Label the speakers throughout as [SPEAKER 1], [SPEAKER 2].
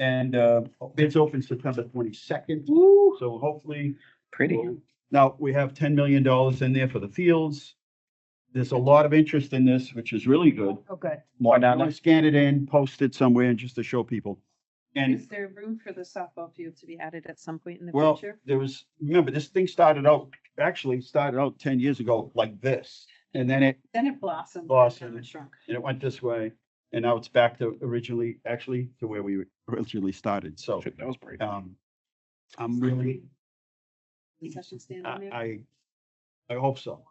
[SPEAKER 1] And uh, bids open September twenty-second,
[SPEAKER 2] Woo,
[SPEAKER 1] so hopefully
[SPEAKER 2] pretty.
[SPEAKER 1] Oh, now, we have ten million dollars in there for the fields. There's a lot of interest in this, which is really good.
[SPEAKER 2] Oh, good.
[SPEAKER 1] Mark,
[SPEAKER 2] Madonna.
[SPEAKER 1] I'm gonna scan it in, post it somewhere and just to show people.
[SPEAKER 3] Is
[SPEAKER 1] And,
[SPEAKER 3] there room for the softball field to be added at some point in the
[SPEAKER 1] well,
[SPEAKER 3] future?
[SPEAKER 1] there was, remember, this thing started out, actually started out ten years ago like this. And then it,
[SPEAKER 3] Then it blossomed. and
[SPEAKER 1] Blossomed.
[SPEAKER 3] it Shrunk.
[SPEAKER 1] and it went this way, and now it's back to originally, actually, to where we originally started, so,
[SPEAKER 2] That was brave.
[SPEAKER 1] um. I'm really,
[SPEAKER 3] Concession stand on there?
[SPEAKER 1] I, I, I hope so.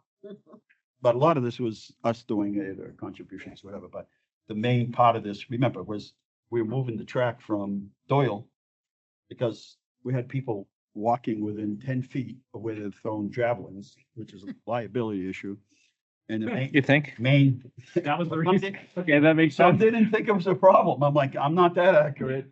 [SPEAKER 1] But a lot of this was us doing it or contributions, whatever, but the main part of this, remember, was we were moving the track from Doyle because we had people walking within ten feet of where they'd thrown javelins, which is a liability issue. And the main,
[SPEAKER 4] Hmm, You think?
[SPEAKER 1] main.
[SPEAKER 4] That was the
[SPEAKER 1] Some
[SPEAKER 4] reason.
[SPEAKER 1] did-
[SPEAKER 4] Okay, that makes
[SPEAKER 1] Some
[SPEAKER 4] sense.
[SPEAKER 1] didn't think it was a problem. I'm like, I'm not that accurate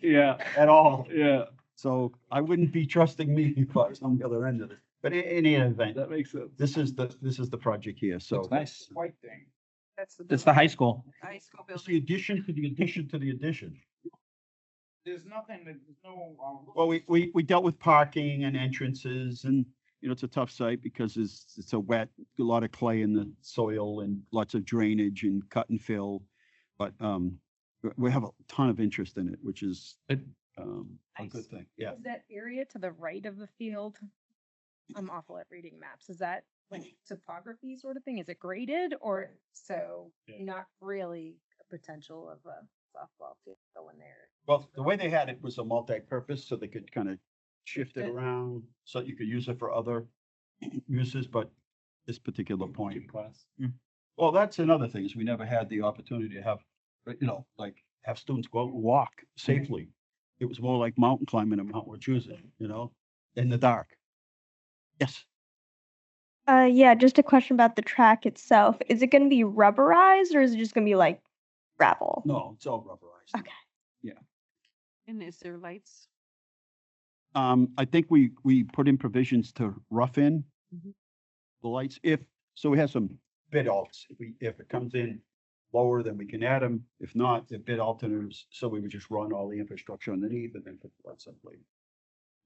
[SPEAKER 4] Yeah,
[SPEAKER 1] at all.
[SPEAKER 4] yeah,
[SPEAKER 1] So I wouldn't be trusting me if I was on the other end of this. But in, in any event,
[SPEAKER 4] that makes sense.
[SPEAKER 1] this is the, this is the project here, so.
[SPEAKER 4] nice.
[SPEAKER 1] White thing.
[SPEAKER 4] It's
[SPEAKER 3] That's
[SPEAKER 4] the
[SPEAKER 3] building.
[SPEAKER 4] high school.
[SPEAKER 3] High school
[SPEAKER 1] It's
[SPEAKER 3] building.
[SPEAKER 1] the addition to the addition to the addition.
[SPEAKER 5] There's nothing that, there's no. uh,
[SPEAKER 1] Well, we, we, we dealt with parking and entrances and, you know, it's a tough site because it's, it's a wet, a lot of clay in the soil and lots of drainage and cut and fill. But, um, we- we have a ton of interest in it, which is,
[SPEAKER 4] Good.
[SPEAKER 1] um, a good
[SPEAKER 6] Nice.
[SPEAKER 1] thing. Yeah.
[SPEAKER 6] Is that area to the right of the field? I'm awful at reading maps. Is that like topography sort of thing? Is it graded or so
[SPEAKER 4] Yeah.
[SPEAKER 6] not really a potential of a softball field going there?
[SPEAKER 1] Well, the way they had it was a multi-purpose, so they could kind of shift it
[SPEAKER 3] Shift it.
[SPEAKER 1] around, so you could use it for other uses, but this particular point.
[SPEAKER 4] class.
[SPEAKER 1] Well, that's another thing, is we never had the opportunity to have, uh, you know, like, have students go out and walk safely. It was more like mountain climbing in Mount Wachusett, you know, in the dark. Yes,
[SPEAKER 7] Uh, yeah, just a question about the track itself. Is it going to be rubberized or is it just going to be like gravel?
[SPEAKER 1] no, it's all rubberized.
[SPEAKER 7] Okay.
[SPEAKER 3] And is there lights?
[SPEAKER 1] Um, I think we, we put in provisions to rough in
[SPEAKER 3] Mhm.
[SPEAKER 1] the lights if, so we have some bid alts. If we, if it comes in lower, then we can add them. If not, the bid alternatives, so we would just run all the infrastructure underneath and then put the lights up later.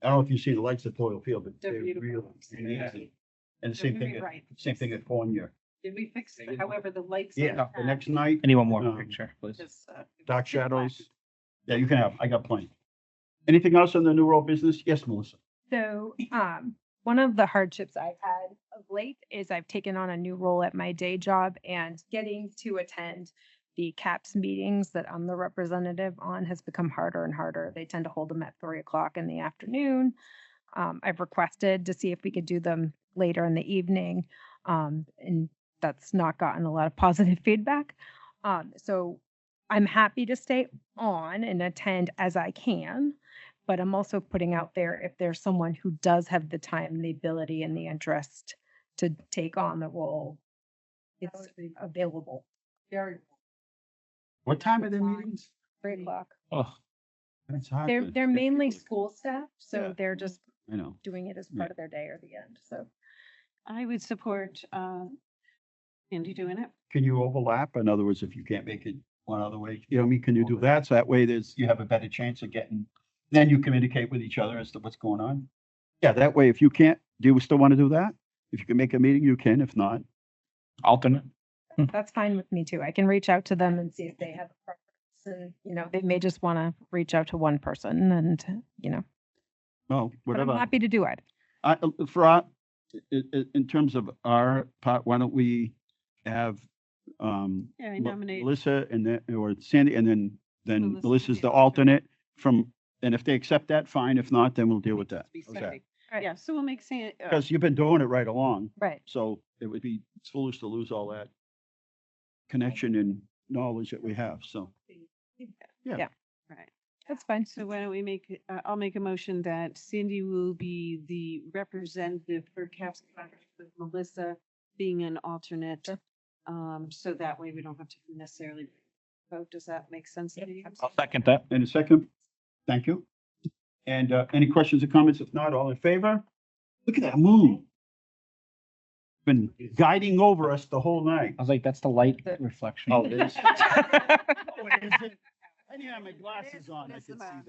[SPEAKER 1] I don't know if you see the lights at Toil Field, but
[SPEAKER 3] They're
[SPEAKER 1] they're really
[SPEAKER 3] beautiful.
[SPEAKER 1] amazing. And the
[SPEAKER 3] They're
[SPEAKER 1] same
[SPEAKER 3] very
[SPEAKER 1] thing, at-
[SPEAKER 3] bright.
[SPEAKER 1] same thing at Fournier.
[SPEAKER 3] Did we fix,
[SPEAKER 4] They did.
[SPEAKER 3] however, the lights? on the
[SPEAKER 1] Yeah, the
[SPEAKER 3] back
[SPEAKER 1] next night,
[SPEAKER 4] Anyone more
[SPEAKER 1] Um,
[SPEAKER 4] picture, please?
[SPEAKER 3] is, uh,
[SPEAKER 1] dark
[SPEAKER 3] pitch black.
[SPEAKER 1] shadows. Yeah, you can have, I got plenty. Anything else on the New World business? Yes, Melissa.
[SPEAKER 6] So, um, one of the hardships I've had of late is I've taken on a new role at my day job and getting to attend the CAPS meetings that I'm the representative on has become harder and harder. They tend to hold them at three o'clock in the afternoon. Um, I've requested to see if we could do them later in the evening. Um, and that's not gotten a lot of positive feedback. Um, so I'm happy to stay on and attend as I can but I'm also putting out there if there's someone who does have the time, the ability, and the interest to take on the role,
[SPEAKER 3] That
[SPEAKER 6] it's
[SPEAKER 3] would be
[SPEAKER 6] available.
[SPEAKER 3] Very.
[SPEAKER 1] What time are their
[SPEAKER 3] Fine.
[SPEAKER 1] meetings?
[SPEAKER 6] Three
[SPEAKER 3] Mhm.
[SPEAKER 6] o'clock.
[SPEAKER 4] Oh,
[SPEAKER 1] That's hard
[SPEAKER 6] They're
[SPEAKER 1] to-
[SPEAKER 6] they're mainly
[SPEAKER 1] difficult.
[SPEAKER 6] school staff,
[SPEAKER 1] Yeah.
[SPEAKER 6] so they're just
[SPEAKER 1] I know.
[SPEAKER 6] doing it as
[SPEAKER 1] Yeah.
[SPEAKER 6] part of their day or the end. So
[SPEAKER 3] I would support, uh, Andy doing it.
[SPEAKER 1] Can you overlap? In other words, if you can't make it one other way, you know, what I mean, can you do
[SPEAKER 4] Overlap.
[SPEAKER 1] that? So that way there's, you have a better chance of getting, then you communicate with each other as to what's going on. Yeah, that way, if you can't, do you still want to do that? If you can make a meeting, you can. If not,
[SPEAKER 4] alternate.
[SPEAKER 6] that's fine with me too. I can reach out to them and see if they have a preference. And you know, they may just want to reach out to one person, and you know,
[SPEAKER 1] no,
[SPEAKER 6] but I'm
[SPEAKER 1] whatever.
[SPEAKER 6] happy to do it.
[SPEAKER 1] I, uh, for our, i- i- in terms of our part, why don't we have, um,
[SPEAKER 3] Yeah, I
[SPEAKER 1] Mel-
[SPEAKER 3] nominate.
[SPEAKER 1] Melissa and then, or Sandy, and then, then
[SPEAKER 3] Melissa
[SPEAKER 1] Melissa's
[SPEAKER 3] be
[SPEAKER 1] the
[SPEAKER 3] the
[SPEAKER 1] alternate from, and if they accept that, fine. If not, then we'll deal with that.
[SPEAKER 3] Be
[SPEAKER 1] Okay.
[SPEAKER 3] Sandy.
[SPEAKER 6] Right.
[SPEAKER 3] Yeah, so we'll make San, uh,
[SPEAKER 1] Because you've been doing it right along.
[SPEAKER 6] Right.
[SPEAKER 1] So it would be foolish to lose all that connection and knowledge that we have, so.
[SPEAKER 3] right.
[SPEAKER 6] That's fine.
[SPEAKER 3] So why don't we make, uh, I'll make a motion that Cindy will be the representative for CAPS contract with Melissa being an alternate. Um, so that way we don't have to necessarily vote. Does that make sense to you?
[SPEAKER 4] I'll second that.
[SPEAKER 1] And a second, thank you. And uh, any questions or comments? If not, all in favor? Look at that moon. Been guiding over us the whole night.
[SPEAKER 4] Oh, I was like, that's the light
[SPEAKER 6] The-
[SPEAKER 4] reflection.
[SPEAKER 1] Oh, it is. I didn't have my glasses on, I could see that.